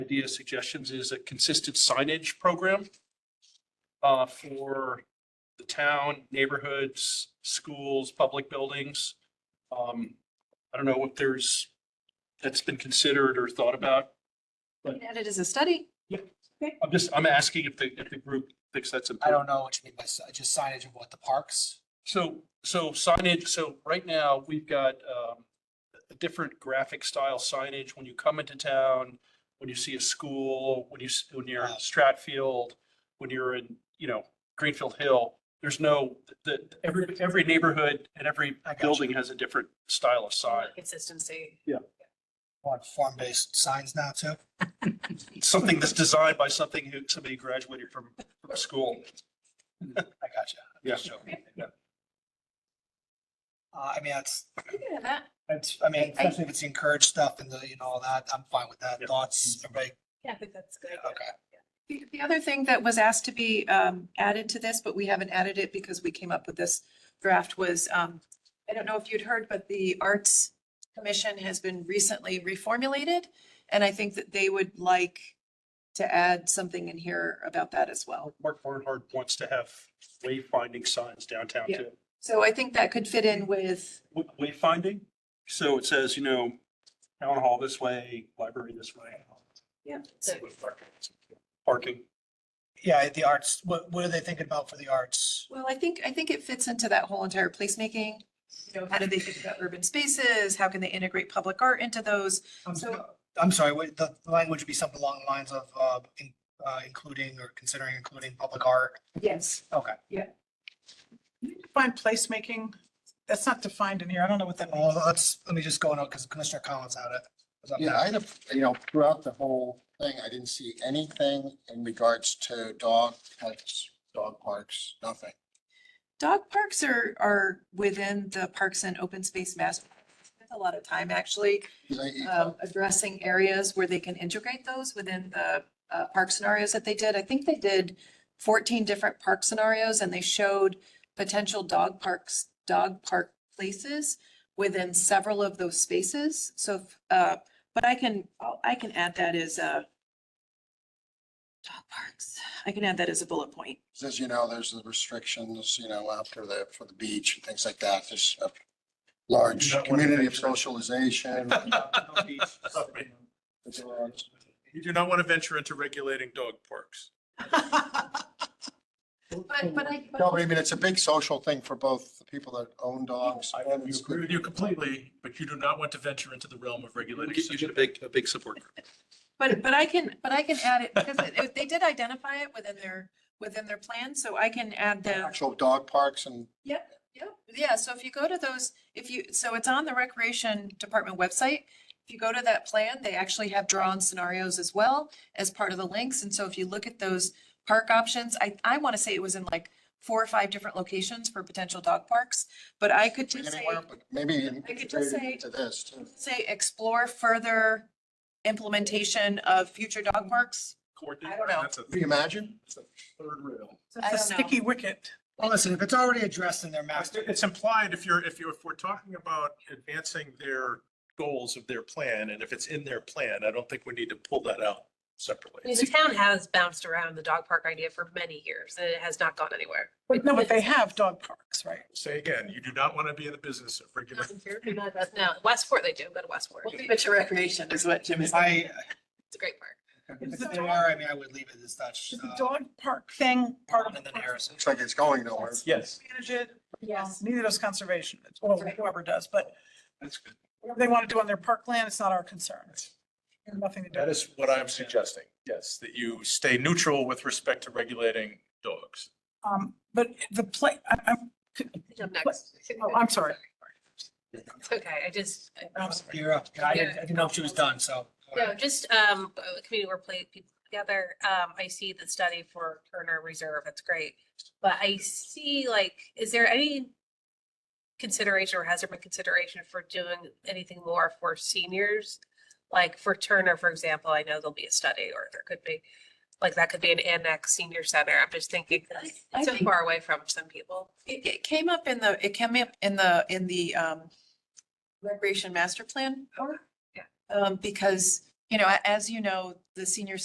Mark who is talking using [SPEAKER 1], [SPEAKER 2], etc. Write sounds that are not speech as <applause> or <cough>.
[SPEAKER 1] idea suggestions is a consistent signage program uh, for the town, neighborhoods, schools, public buildings. Um, I don't know if there's, that's been considered or thought about.
[SPEAKER 2] Add it as a study.
[SPEAKER 1] I'm just, I'm asking if the, if the group thinks that's important.
[SPEAKER 3] I don't know what you mean by si- just signage of what the parks.
[SPEAKER 1] So, so signage, so right now, we've got um, a different graphic style signage when you come into town, when you see a school, when you, s- when you're in Stratfield, when you're in, you know, Greenfield Hill, there's no, the, every, every neighborhood and every
[SPEAKER 3] I got you.
[SPEAKER 1] building has a different style of sign.
[SPEAKER 2] Consistency.
[SPEAKER 3] Want form-based signs now too?
[SPEAKER 1] It's something that's designed by something who, somebody who graduated from, from school.
[SPEAKER 3] I got you.
[SPEAKER 1] Yeah. Yeah.
[SPEAKER 3] Uh, I mean, that's,
[SPEAKER 2] that.
[SPEAKER 3] that's, I mean,
[SPEAKER 2] I- I-
[SPEAKER 3] especially if it's encouraged stuff and the, you know, all that, I'm fine with that.
[SPEAKER 1] Yeah.
[SPEAKER 3] Thoughts, everybody?
[SPEAKER 2] Yeah, I think that's good.
[SPEAKER 3] Okay.
[SPEAKER 2] The the other thing that was asked to be um, added to this, but we haven't added it because we came up with this draft was, um, I don't know if you'd heard, but the Arts Commission has been recently reformulated. And I think that they would like to add something in here about that as well.
[SPEAKER 1] Mark Barnhart wants to have wayfinding signs downtown
[SPEAKER 2] Yeah.
[SPEAKER 1] too.
[SPEAKER 2] So I think that could fit in with,
[SPEAKER 1] w- wayfinding. So it says, you know, town hall this way, library this way.
[SPEAKER 2] Yeah.
[SPEAKER 1] Parking.
[SPEAKER 3] Yeah, the arts, what, what are they thinking about for the arts?
[SPEAKER 2] well, I think, I think it fits into that whole entire placemaking. You know, how do they think about urban spaces? How can they integrate public art into those?
[SPEAKER 3] I'm
[SPEAKER 2] So-
[SPEAKER 3] Um, so- I'm sorry, wait, the the language would be something along the lines of, uh, in- uh, including or considering including public art.
[SPEAKER 2] Yes.
[SPEAKER 3] Okay.
[SPEAKER 4] Define placemaking, that's not defined in here. I don't know what that means.
[SPEAKER 3] Well, let's, let me just go on, because Commissioner Collins had it. Was up
[SPEAKER 5] Yeah,
[SPEAKER 3] next.
[SPEAKER 5] I had, a- you know, throughout the whole thing, I didn't see anything in regards to dog pets, dog parks, nothing.
[SPEAKER 2] Dog parks are, are within the Parks and Open Space Master. plan. I Spent a lot of time actually,
[SPEAKER 5] 'Cause I-
[SPEAKER 2] um, addressing areas where they can integrate those within the, uh, park scenarios that they did. I think they did fourteen different park scenarios and they showed potential dog parks, dog park places within several of those spaces. So, uh, but I can, I'll- I can add that as a dog parks. I can add that as a bullet point.
[SPEAKER 5] As you know, there's the restrictions, you know, after the, for the beach and things like that, there's a large
[SPEAKER 1] You don't wanna
[SPEAKER 5] community of
[SPEAKER 1] venture in.
[SPEAKER 6] <laughs>
[SPEAKER 5] socialization.
[SPEAKER 3] <laughs>
[SPEAKER 6] You do not want to venture into regulating dog parks.
[SPEAKER 2] But, but I. but-
[SPEAKER 5] No, but I mean, it's a big social thing for both the people that own dogs.
[SPEAKER 6] I
[SPEAKER 5] and it's-
[SPEAKER 6] agree with you completely, but you do not want to venture into the realm of regulating.
[SPEAKER 1] You get a big, a big support group.
[SPEAKER 2] But, but I can, but I can add it, because it- it- they did identify it within their, within their plan, so I can add the,
[SPEAKER 5] Actual dog parks and
[SPEAKER 2] Yep, yeah, so if you go to those, if you, so it's on the Recreation Department website. If you go to that plan, they actually have drawn scenarios as well as part of the links, and so if you look at those park options, I, I want to say it was in like four or five different locations for potential dog parks, but I could just say.
[SPEAKER 5] anywhere, but maybe.
[SPEAKER 2] I could just say-
[SPEAKER 5] To this, too.
[SPEAKER 2] Say explore further implementation of future dog parks. I don't know.
[SPEAKER 6] That's a
[SPEAKER 5] Can you imagine?
[SPEAKER 6] that's a third rail.
[SPEAKER 2] I
[SPEAKER 4] That's a
[SPEAKER 2] don't know.
[SPEAKER 4] sticky wicket.
[SPEAKER 3] Well, listen, if it's already addressed in their master.
[SPEAKER 6] It's implied if you're, if you're, if we're talking about advancing their goals of their plan, and if it's in their plan, I don't think we need to pull that out
[SPEAKER 7] I mean,
[SPEAKER 6] separately.
[SPEAKER 7] the town has bounced around the dog park idea for many years and it has not gone <laughs> anywhere.
[SPEAKER 4] But no, but they have dog parks, right?
[SPEAKER 6] Say again, you do not want to be in the business of
[SPEAKER 7] Not
[SPEAKER 6] regulating.
[SPEAKER 7] in Fairfield, not that- No, Westport they do, go to Westport.
[SPEAKER 2] We'll leave it to recreation is what Jim is.
[SPEAKER 3] I,
[SPEAKER 7] It's a great park.
[SPEAKER 3] if they are, I mean, I would leave it as such.
[SPEAKER 4] Is the
[SPEAKER 3] uh,
[SPEAKER 4] dog park thing part of
[SPEAKER 3] And
[SPEAKER 4] the
[SPEAKER 3] then Harrison.
[SPEAKER 5] Looks like it's going nowhere.
[SPEAKER 6] Yes.
[SPEAKER 4] Manage it.
[SPEAKER 7] Yes.
[SPEAKER 4] Neither does conservation, It's- or
[SPEAKER 2] Right.
[SPEAKER 4] whoever does, but
[SPEAKER 6] That's good.
[SPEAKER 4] whatever they want to do on their park land, it's not our concern. It's nothing to do.
[SPEAKER 6] That is what I'm suggesting, yes, that you stay neutral with respect to regulating dogs.
[SPEAKER 4] Um, but the play, I, I'm,
[SPEAKER 7] I'm next.
[SPEAKER 4] oh, I'm sorry.
[SPEAKER 7] <laughs> It's okay. I just,
[SPEAKER 4] I'm sorry.
[SPEAKER 3] You're up. I didn't, I didn't know if she was done, so.
[SPEAKER 7] no, just, um, a community where play people together. Um, I see the study for Turner Reserve. That's great. But I see like, is there any consideration or has there been consideration for doing anything more for seniors? Like for Turner, for example, I know there'll be a study or there could be, like that could be an annex senior center. I'm just thinking 'cause
[SPEAKER 2] I
[SPEAKER 7] it's so
[SPEAKER 2] think-
[SPEAKER 7] far away from some people.
[SPEAKER 2] It, it came up in the, it came up in the, in the, um, recreation master plan. Or,
[SPEAKER 7] Yeah.
[SPEAKER 2] Um, because, you know, a- as you know, the senior